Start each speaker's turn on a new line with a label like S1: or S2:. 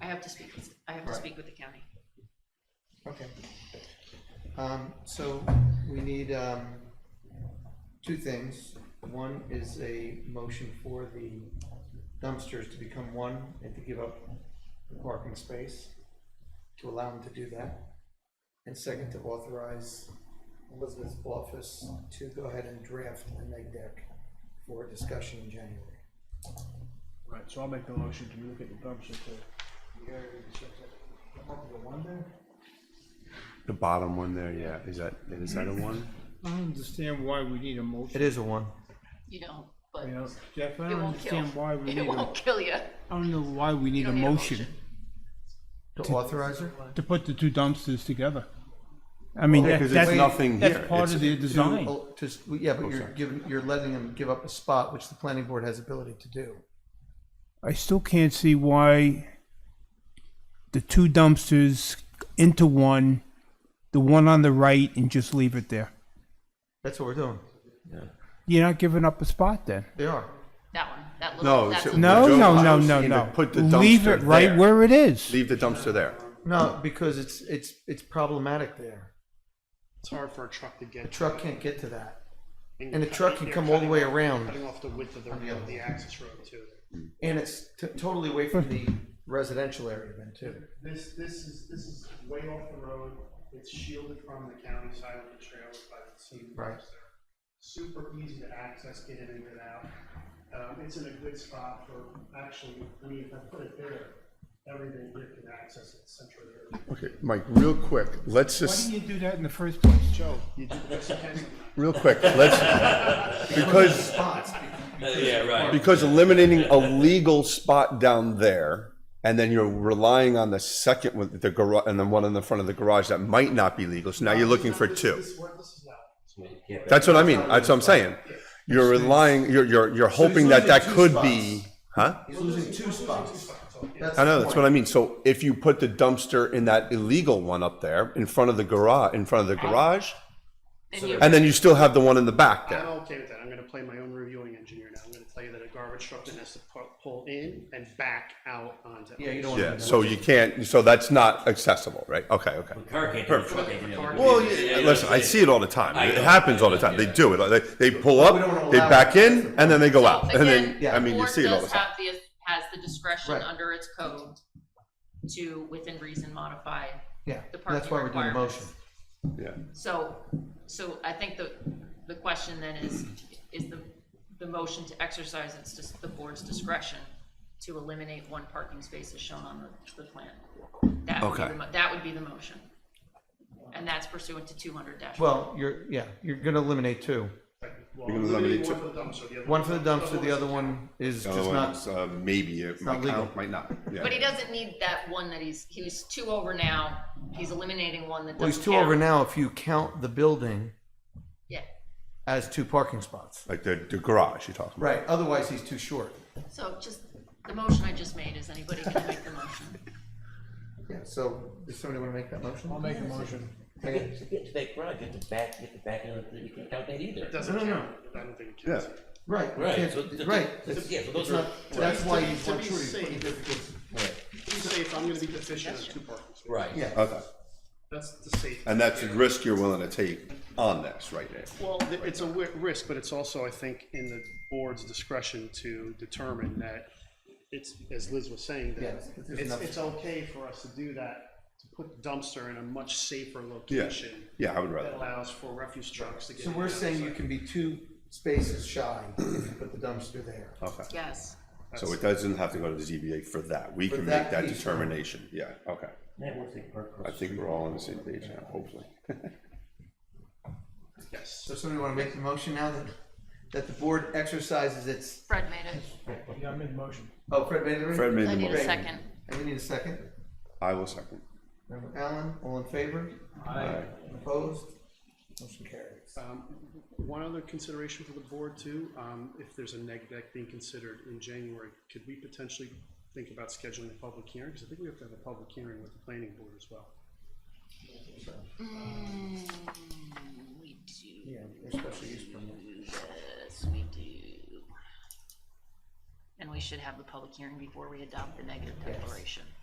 S1: have to speak, with- I have to
S2: Right.
S1: speak with the county.
S2: Okay. Um, so we need, um, two things. One is a motion for the dumpsters to become one and to give up the parking space, to allow them to do that. And second, to authorize Elizabeth's office to go ahead and draft a neg deck for discussion in January.
S3: Right, so I'll make the motion to look at the dumpster to.
S4: The bottom one there, yeah, is that, is that a one?
S3: I don't understand why we need a motion.
S2: is a one.
S1: You don't, but
S3: You
S1: it
S3: know, Jeff, I don't
S1: won't kill.
S3: understand why we need
S1: It
S3: a,
S1: won't
S3: I
S1: kill you.
S3: don't know why we need a
S1: don't need a
S3: motion
S2: To authorize her?
S3: to put the two dumpsters together. I mean,
S4: Yeah,
S3: that-
S4: 'cause
S3: that's.
S4: it's nothing here.
S3: That's part
S4: It's-
S3: of the design.
S2: Oh, just, yeah, but you're
S4: sorry.
S2: giving, you're letting them give up a spot, which the planning board has ability to do.
S3: I still can't see why the two dumpsters into one, the one on the right and just leave it there.
S2: That's what we're doing.
S3: You're not giving up a spot then.
S2: They are.
S1: That one, that
S4: No,
S1: little, that's,
S4: so-
S1: a-
S3: No,
S4: Joe,
S3: no,
S4: I
S3: no,
S4: was
S3: no,
S4: thinking to
S3: no.
S4: put the
S3: Leave
S4: dumpster
S3: it right
S4: there.
S3: where it is.
S4: Leave the dumpster there.
S2: No, because it's, it's, it's problematic there.
S5: It's hard for a truck to
S2: The
S5: get.
S2: truck can't get to that.
S5: and
S2: and the
S5: you're
S2: truck
S5: cutting-
S2: can
S5: you're
S2: come all the
S5: cutting
S2: way
S5: off-
S2: around.
S5: Cutting off the width of the,
S2: On the
S5: of
S2: other.
S5: the access road too.
S2: And it's t- totally away from the residential area then too.
S5: This, this is, this is way off the road, it's shielded from the county side of the trail by the scene.
S2: Right.
S5: Super easy to access, get in and get out. Um, it's in a good spot for, actually, I mean, if I put it there, everything here can access it centrally.
S4: Okay, Mike, real quick, let's
S3: Why
S4: just,
S3: didn't you do that in the first place, Joe?
S4: real quick, let's, because,
S2: Spots.
S6: Yeah, right.
S4: because eliminating a legal spot down there, and then you're relying on the second one, the garage, and then one in the front of the garage that might not be legal, so now you're looking for two.
S5: This is where this is now.
S4: That's what I mean, that's what I'm saying. You're relying, you're, you're, you're hoping that that could be, huh?
S2: He's losing two spots.
S4: I know, that's what I mean. So if you put the dumpster in that illegal one up there, in front of the garage, in front of the garage,
S1: then you,
S4: and then you still have the one in the back
S5: I'm
S4: there.
S5: okay with that, I'm gonna play my own reviewing engineer now, I'm gonna tell you that a garbage truck then has to pu- pull in and back out onto.
S2: Yeah, you don't want
S4: Yeah,
S2: to.
S4: so you can't, so that's not accessible, right? Okay, okay.
S6: Car can't do it, truck can't do it.
S4: Well, yeah, listen, I see it all the time.
S6: I
S4: It
S6: know.
S4: happens all the time. They do it. Like, They, they pull up, they back in, and then they go out. And
S1: again,
S4: then, I
S1: the
S4: mean, you
S1: board
S4: see it all the
S1: does
S4: time.
S1: have the, has the discretion
S2: Right.
S1: under its code to, within reason, modify.
S2: Yeah,
S1: the parking
S2: that's why we're doing a
S1: requirements.
S2: motion.
S4: Yeah.
S1: So, so I think the, the question then is, is the, the motion to exercise its, dis- the board's discretion to eliminate one parking space as shown on the, the plan? That would be
S4: Okay.
S1: the, mo- that would be the motion. And that's pursuant to two hundred dash.
S2: Well, you're, yeah, you're gonna eliminate two.
S5: Well,
S4: You're gonna
S5: literally
S4: eliminate
S5: one for the dumpster, the other
S2: One for the dumpster, the other one is
S4: The other
S2: just not,
S4: one's, uh, maybe it might
S2: not legal.
S4: count, might not. Yeah.
S1: But he doesn't need that one that he's, he was two over now, he's eliminating one that doesn't
S2: well, he's two
S1: count.
S2: over now if you count the building
S1: Yeah,
S2: as two parking spots.
S4: Like the, the garage you're talking about.
S2: Right, otherwise he's too short.
S1: so just, the motion I just made, is anybody gonna make the motion?
S2: Yeah, so, does somebody wanna make that motion?
S3: I'll make a motion.
S6: You get to get to that garage, you have to back, you have to back in, you can't count that either.
S5: Doesn't count, I don't think it counts.
S4: Yeah.
S2: Right, you
S6: Right,
S2: can't-
S6: so th-
S2: right.
S6: th-
S2: it's-
S6: yeah, so
S2: it's
S6: those are-
S2: not- That's why you
S5: To
S2: want
S5: be
S2: to put it
S5: safe.
S2: different-
S5: Be safe, I'm gonna be deficient in two parking spaces.
S6: Right.
S2: Yeah.
S4: Okay.
S5: That's the safe.
S4: And that's the risk you're willing to take on this right there.
S5: Well, th- it's a wi- risk, but it's also, I think, in the board's discretion to determine that it's, as Liz was saying, that
S2: Yes, it's
S5: it's,
S2: enough.
S5: it's okay for us to do that, to put the dumpster in a much safer location
S4: Yeah, I would rather.
S5: that allows for refuse trucks to get.
S2: So
S5: in
S2: we're
S5: and out of
S2: saying
S5: the
S2: you
S5: site.
S2: can be two spaces shy if you put the dumpster there.
S4: Okay.
S1: Yes,
S4: So it doesn't have to go to the ZBA for that. We
S2: For
S4: can
S2: that
S4: make that
S2: piece.
S4: determination. Yeah, okay.
S6: That works like park
S4: I
S6: across the
S4: think
S6: street.
S4: we're all on the same page now, hopefully.
S5: Yes,
S2: So somebody wanna make the motion now that, that the board exercises its,
S1: Fred made it,
S3: Yeah, I made a motion.
S2: oh, Fred made the ring?
S4: Fred made
S1: I
S4: the
S1: need a
S4: motion.
S1: second.
S2: And we need a second.
S4: I will second.
S2: Alan, all in favor? Aye. Opposed? Motion carries.
S5: um, one other consideration for the board too, um, if there's a neg deck being considered in January, could we potentially think about scheduling a public hearing? Cause I think we have to have a public hearing with the planning board as well.
S1: We do.
S2: Yeah, there's special use permit.
S1: Yes, we do. And we should have the public hearing before we adopt the negative declaration.